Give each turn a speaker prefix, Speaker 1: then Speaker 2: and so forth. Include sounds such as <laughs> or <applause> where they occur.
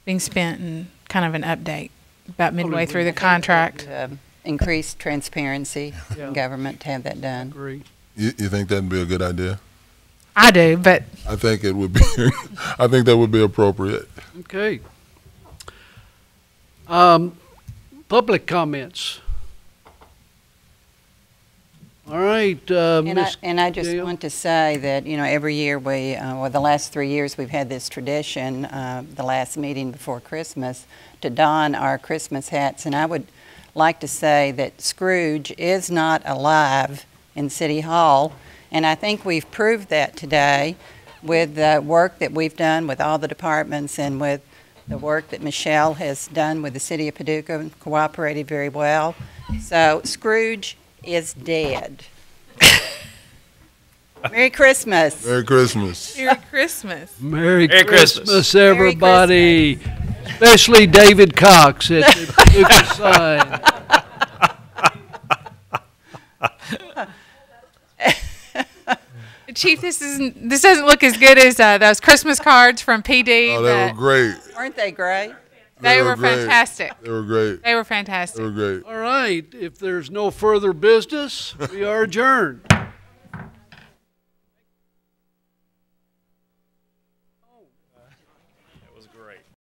Speaker 1: being spent and kind of an update about midway through the
Speaker 2: We'd
Speaker 1: contract.
Speaker 2: have um, Increased transparency in government to have that done.
Speaker 3: Agree.
Speaker 4: You, you think that'd be a good idea?
Speaker 1: I do, but
Speaker 4: I think it would be. <laughs> I think that would be appropriate.
Speaker 3: Okay. Um, public comments. All right, uh,
Speaker 2: And I,
Speaker 3: Ms.
Speaker 2: and I just
Speaker 3: Gail?
Speaker 2: want to say that, you know, every year we, uh, well, the last three years, we've had this tradition, uh, the last meeting before Christmas, to don our Christmas hats. And I would like to say that Scrooge is not alive in City Hall. And I think we've proved that today with the work that we've done with all the departments and with the work that Michelle has done with the City of Paducah and cooperated very well. So Scrooge is dead. Merry Christmas.
Speaker 4: Merry Christmas.
Speaker 1: <laughs> Merry Christmas.
Speaker 3: Merry
Speaker 5: Merry Christmas.
Speaker 3: Christmas, everybody. Especially David Cox at the
Speaker 2: <laughs>
Speaker 3: Paducah sign.
Speaker 1: Chief, this isn't, this doesn't look as good as uh, those Christmas cards from PD.
Speaker 4: Oh, they were
Speaker 1: but
Speaker 4: great.
Speaker 2: Weren't they great?
Speaker 1: They
Speaker 4: They
Speaker 1: were
Speaker 4: were great.
Speaker 1: fantastic.
Speaker 4: They were great.
Speaker 1: They were
Speaker 4: They
Speaker 1: fantastic.
Speaker 4: were great.
Speaker 3: All right, if there's no further business, we are adjourned.